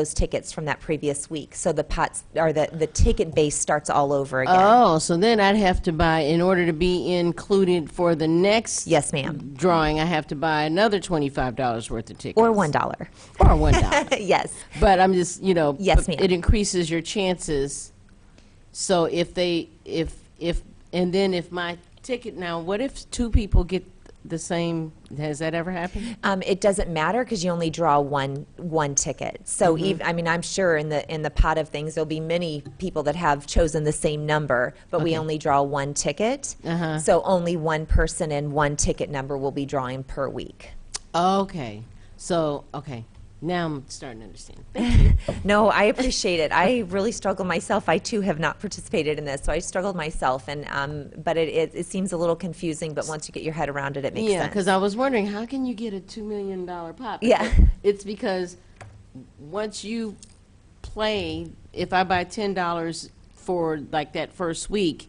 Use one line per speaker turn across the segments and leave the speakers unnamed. those tickets from that previous week. So the pots, or the, the ticket base starts all over again.
Oh, so then I'd have to buy, in order to be included for the next
Yes, ma'am.
drawing, I have to buy another $25 worth of tickets.
Or $1.
Or $1.
yes.
But I'm just, you know.
Yes,
but
ma'am.
It increases your chances. So if they, if, if, and then if my ticket, now, what if two people get the same, has that ever happened?
Um, it doesn't matter because you only draw one one ticket. So
Mm-hmm.
ev I mean, I'm sure in the in the pot of things there'll be many people that have chosen the same number, but we only draw one ticket.
Uh-huh.
So only one person and one ticket number will be drawing per week.
Okay, so, okay, now I'm starting to understand.
No, I appreciate it. I really struggle myself. I too have not participated in this, so I struggled myself. And um, but it, it it seems a little confusing. But once you get your head around it, it makes
Yeah,
sense.
because I was wondering, how can you get a $2 million pop?
Yeah.
But It's because once you play, if I buy $10 for like that first week,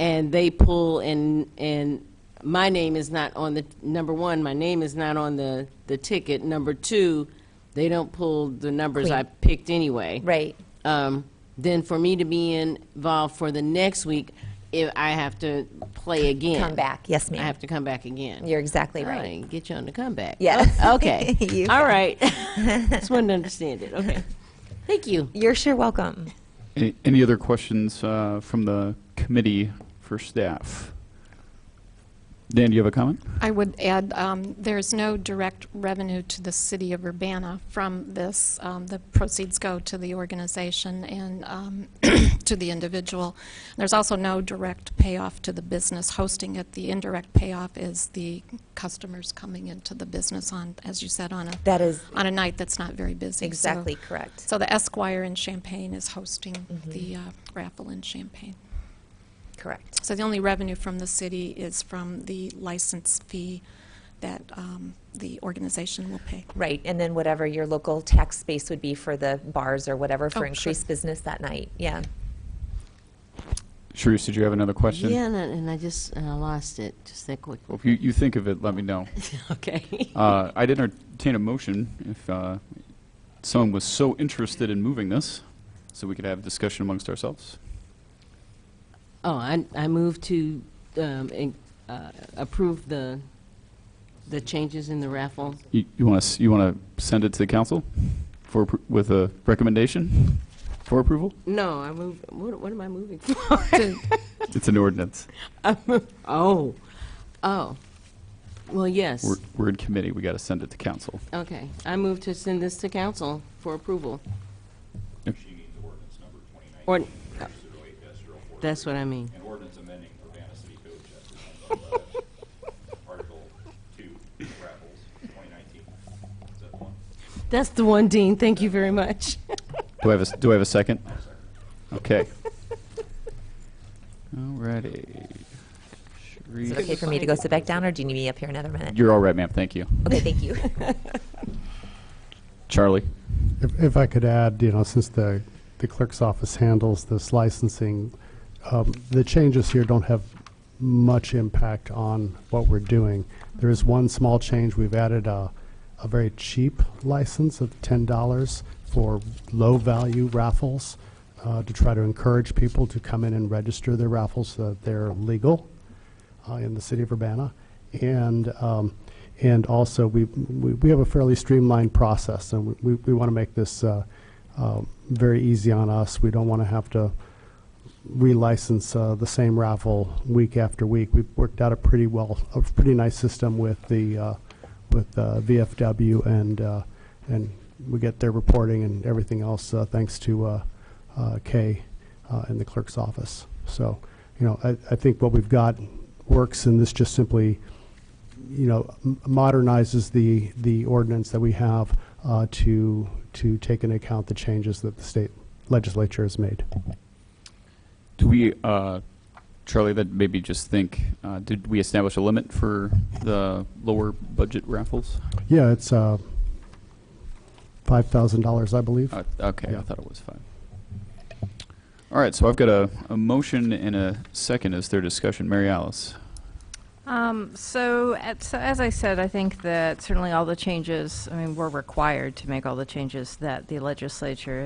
and they pull and, and my name is not on the, number one, my name is not on the, the ticket. Number two, they don't pull the numbers I picked anyway
right.
um, then for me to be involved for the next week, if I have to play again.
Come back. Yes, ma'am.
I have to come back again.
You're exactly
All
right.
right, get you on the comeback.
Yes.
Oh, Okay.
You
All
got it.
right. Just wanted to understand it. Okay. Thank you.
You're sure welcome.
Any, any other questions uh, from the committee for staff? Dan, do you have a comment?
I would add, um, there's no direct revenue to the city of Urbana from this. Um, The proceeds go to the organization and um, to the individual. There's also no direct payoff to the business hosting it. The indirect payoff is the customers coming into the business on, as you said, on a,
That is
on a night that's not very busy. So-
exactly correct. Mm-hmm.
So the Esquire in Champaign is hosting the uh, raffle in Champaign.
Correct.
So the only revenue from the city is from the license fee that um, the organization will pay.
Right, and then whatever your local tax base would be for the bars or whatever
Oh,
for
sure.
increased business that night, yeah.
Sharice, did you have another question?
Yeah, and I, and I just and I lost it just that quick.
Well, if you, you think of it, let me know.
Okay.
Uh, I'd entertain a motion if uh, someone was so interested in moving this, so we could have a discussion amongst ourselves.
Oh, I, I move to um, in- uh, approve the the changes in the raffle.
You, you want to you want to send it to the council for appro- with a recommendation for approval?
No, I move. What, what am I moving for?
To-
It's an ordinance.
Oh, oh. Well, yes.
We're, we're in committee. We got to send it to council.
Okay, I move to send this to council for approval.
Yep.
She means ordinance number 2019. That's what I mean.
An ordinance amending Urbana City Code, Chapter 111, Article 2, raffles, 2019. Is that the one?
That's the one, Dean, thank you very much.
Do I have a, s- do I have a second? Okay. Alrighty.
Is it okay
Sharice-
for me to go sit back down, or do you need me up here another minute?
You're all right, ma'am, thank you.
Okay, thank you.
Charlie?
If, if I could add, you know, since the, the clerk's office handles this licensing, um, the changes here don't have much impact on what we're doing. There is one small change. We've added a, a very cheap license of ten dollars for low-value raffles uh, to try to encourage people to come in and register their raffles so that they're legal uh, in the city of Urbana. And, um, and also, we, we we have a fairly streamlined process, and we, we want to make this uh, uh, very easy on us. We don't want to have to relicense uh, the same raffle week after week. We've worked out a pretty well, a pretty nice system with the, uh, with uh, VFW, and, uh, and we get their reporting and everything else, uh, thanks to uh, uh, Kay uh, in the clerk's office. So, you know, I, I think what we've got works, and this just simply, you know, m- modernizes the, the ordinance that we have uh, to, to take into account the changes that the state legislature has made.
Do we, uh, Charlie, that maybe just think, uh, did we establish a limit for the lower budget raffles?
Yeah, it's uh, $5,000, I believe.
Uh, Okay, I
Yeah.
thought it was five. All right, so I've got a, a motion and a second. Is there discussion? Mary Alice?
Um, So, at- so as I said, I think that certainly all the changes, I mean, we're required to make all the changes that the legislature